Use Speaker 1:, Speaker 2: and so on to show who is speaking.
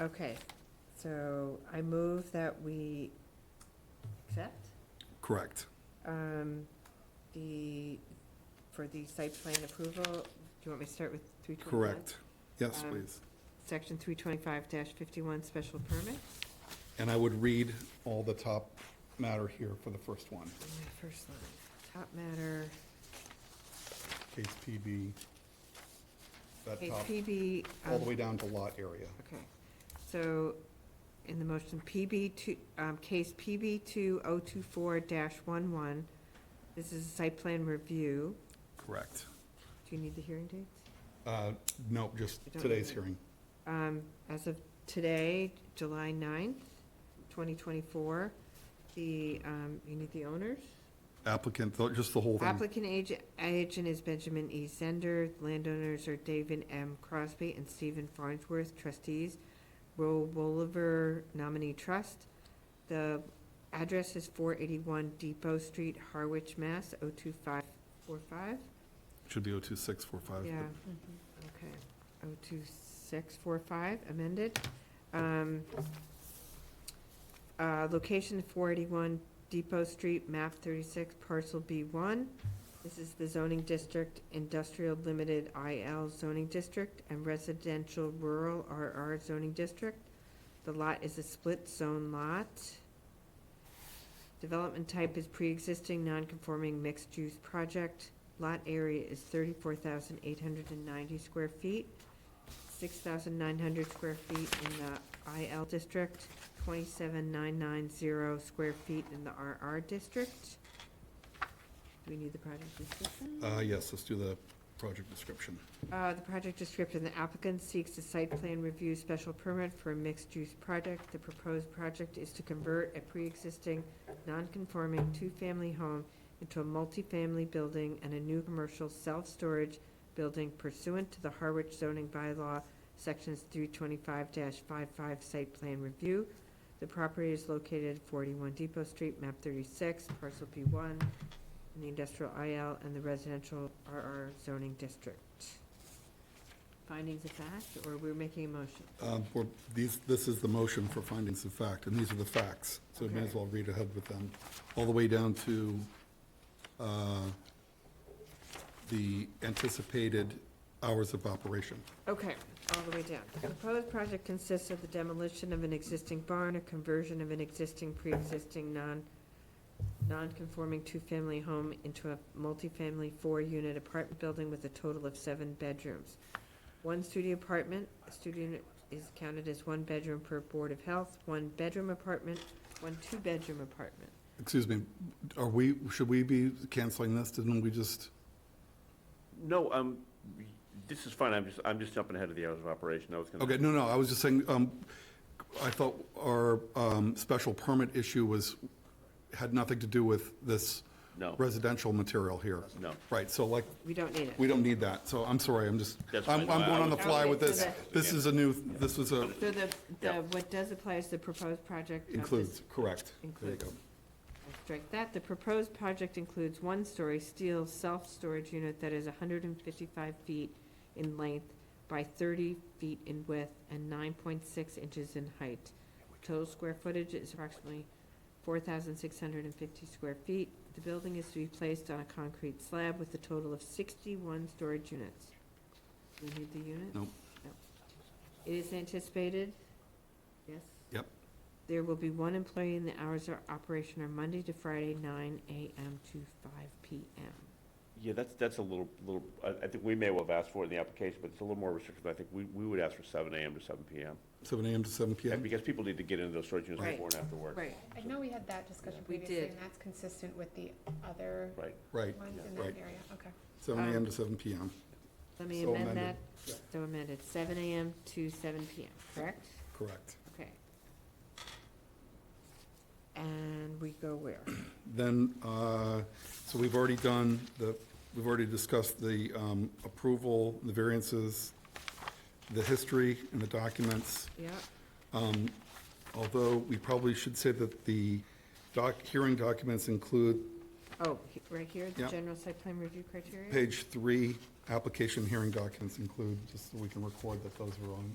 Speaker 1: Okay, so I move that we accept
Speaker 2: Correct.
Speaker 1: um, the, for the site plan approval. Do you want me to start with three twenty-five?
Speaker 2: Correct. Yes,
Speaker 1: Um,
Speaker 2: please.
Speaker 1: Section three twenty-five fifty-one, special permit.
Speaker 2: And I would read all the top matter here for the first one.
Speaker 1: And the First line, top matter,
Speaker 2: Case PB, that
Speaker 1: case
Speaker 2: top,
Speaker 1: PB.
Speaker 2: all
Speaker 1: um,
Speaker 2: the way down to lot area.
Speaker 1: Okay, so in the motion, PB two, um, case PB two oh two four dash one one, this is a site plan review.
Speaker 2: Correct.
Speaker 1: Do you need the hearing dates?
Speaker 2: Uh, No, just
Speaker 1: I don't
Speaker 2: today's
Speaker 1: know.
Speaker 2: hearing.
Speaker 1: Um, as of today, July ninth, twenty twenty-four, the, um, you need the owners?
Speaker 2: Applicant, tho- just the whole thing.
Speaker 1: Applicant agent, agent is Benjamin E. Zender, landowners are David M. Crosby and Stephen Farnsworth, trustees, Roe Bolivar nominee trust. The address is four eighty-one Depot Street, Harwich, Mass, oh two five four five,
Speaker 2: Should be 02645.
Speaker 1: yeah, okay, oh two six four five, amended. Um, uh, location four eighty-one Depot Street, map thirty-six, parcel B one. This is the zoning district, industrial limited IL zoning district, and residential rural RR zoning district. The lot is a split zone lot. Development type is pre-existing, non-conforming mixed-use project. Lot area is thirty-four thousand eight hundred and ninety square feet, six thousand nine hundred square feet in the IL district, twenty-seven nine nine zero square feet in the RR district. Do we need the project description?
Speaker 2: Uh, Yes, let's do the project description.
Speaker 1: Uh, the project description, the applicant seeks a site plan review special permit for a mixed-use project. The proposed project is to convert a pre-existing, non-conforming two-family home into a multifamily building and a new commercial self-storage building pursuant to the Harwich zoning bylaw, sections three twenty-five 55 site plan review. The property is located at forty-one Depot Street, map thirty-six, parcel B one, in the industrial IL and the residential RR zoning district. Findings of fact, or we're making a motion?
Speaker 2: Um, we're- These, this is the motion for findings of fact, and these are the facts, so we may as
Speaker 1: Okay.
Speaker 2: well read ahead with them, all the way down to uh, the anticipated hours of operation.
Speaker 1: Okay, all the way down. The proposed project consists of the demolition of an existing barn, a conversion of an existing pre-existing non, non-conforming two-family home into a multifamily four-unit apartment building with a total of seven bedrooms. One studio apartment, a studio unit is counted as one bedroom per Board of Health, one bedroom apartment, one two-bedroom apartment.
Speaker 2: Excuse me, are we, should we be canceling this? Didn't we just,
Speaker 3: No, um, this is fine, I'm just, I'm just jumping ahead of the hours of operation, I was gonna.
Speaker 2: okay, no, no, I was just saying, um, I thought our um, special permit issue was, had nothing to do with this
Speaker 3: No.
Speaker 2: residential material here.
Speaker 3: No.
Speaker 2: Right, so like,
Speaker 1: We don't need it.
Speaker 2: We don't need that, so I'm sorry, I'm just,
Speaker 3: That's
Speaker 2: I'm, I'm
Speaker 3: fine. No, I
Speaker 2: going on the
Speaker 3: was-
Speaker 2: fly with
Speaker 1: Okay,
Speaker 2: this.
Speaker 1: so
Speaker 2: This is a new, this was a,
Speaker 1: So the, the,
Speaker 3: Yeah.
Speaker 1: what does apply is the proposed project. of this-
Speaker 2: includes, correct. There you
Speaker 1: Includes.
Speaker 2: go.
Speaker 1: I'll Strike that. The proposed project includes one-story steel self-storage unit that is hundred and fifty-five feet in length by thirty feet in width and nine point six inches in height. Total square footage is approximately four thousand six hundred and fifty square feet. The building is to be placed on a concrete slab with a total of sixty-one storage units. Do we need the unit?
Speaker 2: Nope.
Speaker 1: No. It is anticipated, yes?
Speaker 2: Yep.
Speaker 1: There will be one employee and the hours of operation are Monday to Friday, nine AM to five PM.
Speaker 3: Yeah, that's, that's a little, little, I, I think we may well have asked for it in the application, but it's a little more restrictive, I think we, we would ask for seven AM to seven PM.
Speaker 2: Seven AM to seven
Speaker 3: And
Speaker 2: PM.
Speaker 3: because people need to get into those storage units
Speaker 1: Right.
Speaker 3: before and after work.
Speaker 1: Right.
Speaker 4: I know we had that discussion
Speaker 1: We
Speaker 4: previously,
Speaker 1: did.
Speaker 4: and that's consistent with the other
Speaker 3: Right,
Speaker 2: Right,
Speaker 4: ones in
Speaker 2: right.
Speaker 4: that area, okay.
Speaker 2: seven AM to seven PM,
Speaker 1: Let me
Speaker 2: So
Speaker 1: amend
Speaker 2: amended.
Speaker 1: that. So amended, seven AM to seven PM, correct?
Speaker 2: correct.
Speaker 1: Okay. And we go where?
Speaker 2: Then, uh, so we've already done the, we've already discussed the um, approval, the variances, the history and the documents.
Speaker 1: Yeah,
Speaker 2: Although we probably should say that the doc, hearing documents include
Speaker 1: oh, he- right here, the
Speaker 2: Yep.
Speaker 1: general site plan review criteria?
Speaker 2: Page three, application hearing documents include, just so we can record that those are on,